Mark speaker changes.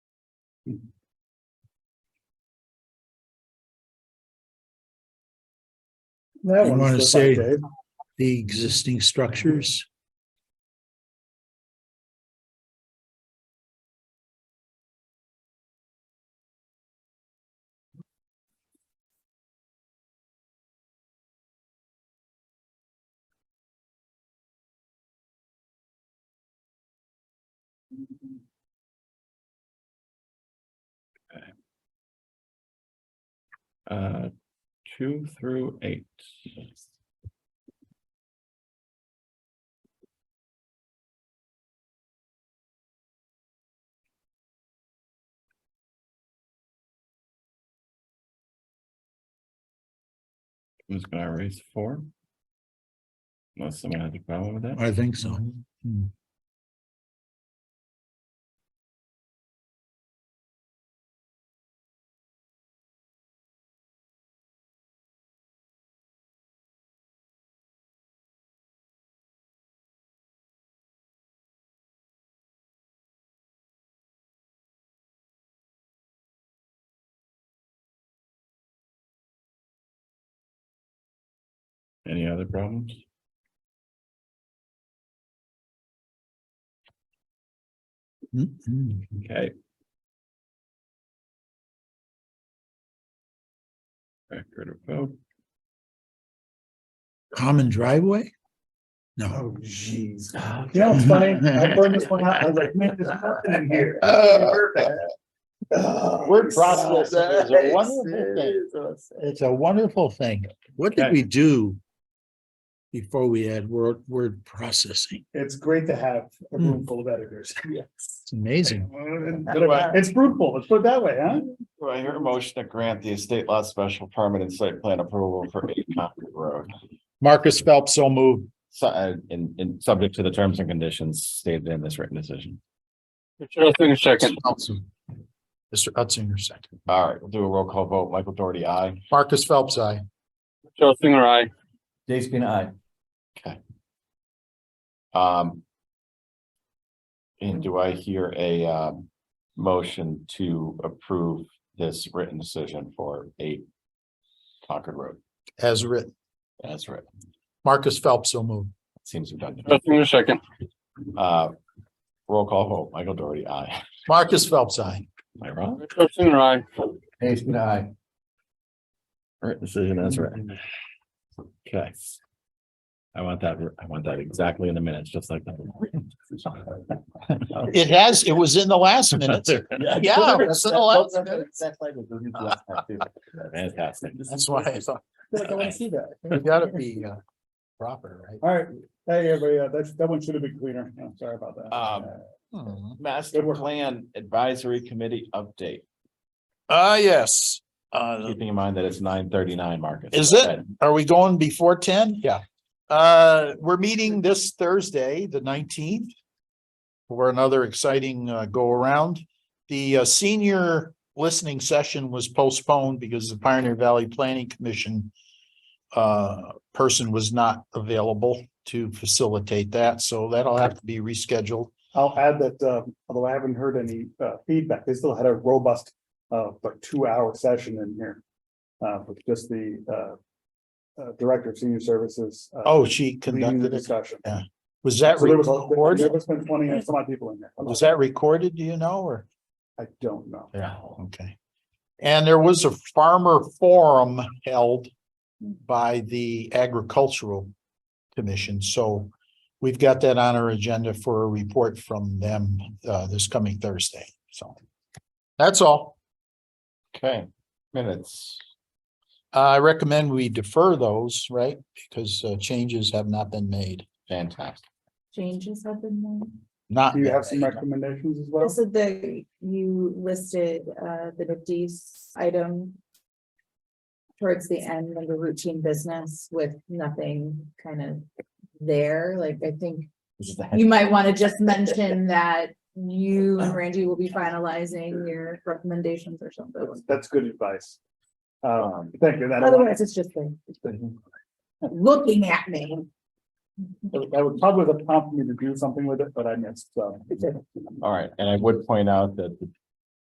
Speaker 1: That
Speaker 2: You
Speaker 1: one's
Speaker 2: wanna
Speaker 1: the
Speaker 2: say-
Speaker 1: back, Dave.
Speaker 2: the existing structures.
Speaker 3: Uh, two through eight. I'm just gonna erase four. Unless someone has a problem with that.
Speaker 2: I think so. Hmm.
Speaker 3: Any other problems?
Speaker 2: Hmm, hmm.
Speaker 3: Okay. Record of vote.
Speaker 2: Common driveway? No.
Speaker 1: Oh, jeez.
Speaker 4: Ah,
Speaker 1: You know, it's funny, I burned this one out, I was like, man, there's nothing in here.
Speaker 2: Oh,
Speaker 4: Word processing is a
Speaker 2: Yes,
Speaker 4: wonderful thing.
Speaker 2: It's a wonderful thing. What did
Speaker 3: Okay.
Speaker 2: we do before we had word, word processing?
Speaker 1: It's great to have a
Speaker 4: Hmm.
Speaker 1: room full of editors.
Speaker 2: It's amazing.
Speaker 3: Right.
Speaker 1: It's fruitful, let's put it that way, huh?
Speaker 3: Do I hear a motion to grant the estate lot special permit and site plan approval for eight Concord Road?
Speaker 2: Marcus Phelps, so moved.
Speaker 3: So, uh, in, in, subject to the terms and conditions stated in this written decision.
Speaker 2: Second. Mr. Utzinger, second.
Speaker 3: All right, we'll do a roll call vote. Michael Doherty, aye.
Speaker 2: Marcus Phelps, I.
Speaker 3: Dave Spina, aye. Okay. Um. And do I hear a, um, motion to approve this written decision for eight Concord Road?
Speaker 2: as written.
Speaker 3: That's right.
Speaker 2: Marcus Phelps, so moved.
Speaker 3: Seems redundant.
Speaker 4: Justin, a second.
Speaker 3: Uh, roll call vote. Michael Doherty, aye.
Speaker 2: Marcus Phelps, I.
Speaker 3: Am I wrong?
Speaker 4: Justin, I.
Speaker 3: Jason, aye. Right decision, that's right. Okay. I want that, I want that exactly in the minutes, just like that.
Speaker 2: It has, it was in the last minutes. Yeah, that's in the last minutes.
Speaker 3: Fantastic.
Speaker 2: That's why I thought,
Speaker 1: I feel like I wanna see that.
Speaker 2: you gotta be uh, proper, right?
Speaker 1: All right, hey, everybody, uh, that's, that one should have been cleaner, I'm sorry about that.
Speaker 3: Um,
Speaker 1: Uh,
Speaker 2: Hmm.
Speaker 3: Master Plan Advisory Committee update,
Speaker 2: Ah, yes. Uh,
Speaker 3: keeping in mind that it's nine thirty-nine, Marcus.
Speaker 2: Is it? are we going before ten? Yeah. Uh, we're meeting this Thursday, the nineteenth. For another exciting uh go around. The uh, senior listening session was postponed because the Pioneer Valley Planning Commission. Uh, person was not available to facilitate that, so that'll have to be rescheduled.
Speaker 1: I'll add that, um, although I haven't heard any, uh, feedback, they still had a robust, uh, like two-hour session in here. Uh, with just the, uh, uh, Director of Senior Services. uh,
Speaker 2: Oh, she
Speaker 1: leading the
Speaker 2: conducted it.
Speaker 1: Discussion.
Speaker 2: Yeah. Was that
Speaker 1: So there was, a- there
Speaker 2: recorded?
Speaker 1: was been twenty and some odd people in there.
Speaker 2: Was that recorded, do you know, or?
Speaker 1: I don't know.
Speaker 2: Yeah, okay. And there was a farmer forum held by the agricultural commission, so we've got that on our agenda for a report from them uh this coming Thursday, so. That's all.
Speaker 3: Okay, minutes.
Speaker 2: I recommend we defer those, right? Because uh, changes have not been made,
Speaker 3: Fantastic.
Speaker 5: changes have been made?
Speaker 2: not.
Speaker 1: Do you have some
Speaker 2: been made.
Speaker 1: recommendations as
Speaker 5: I
Speaker 1: well?
Speaker 5: said that you listed uh the Nifty's item. Towards the end, under routine business with nothing kind of there, like I think
Speaker 3: This is the
Speaker 5: you might want to just mention that. You and Randy will be finalizing your recommendations or something.
Speaker 1: That's good advice. Um, thank you. That
Speaker 5: Otherwise, it's just like
Speaker 1: that
Speaker 5: looking at me.
Speaker 1: would probably have prompted me to do something with it, but I missed, um, so.
Speaker 3: All right, and I would point out that the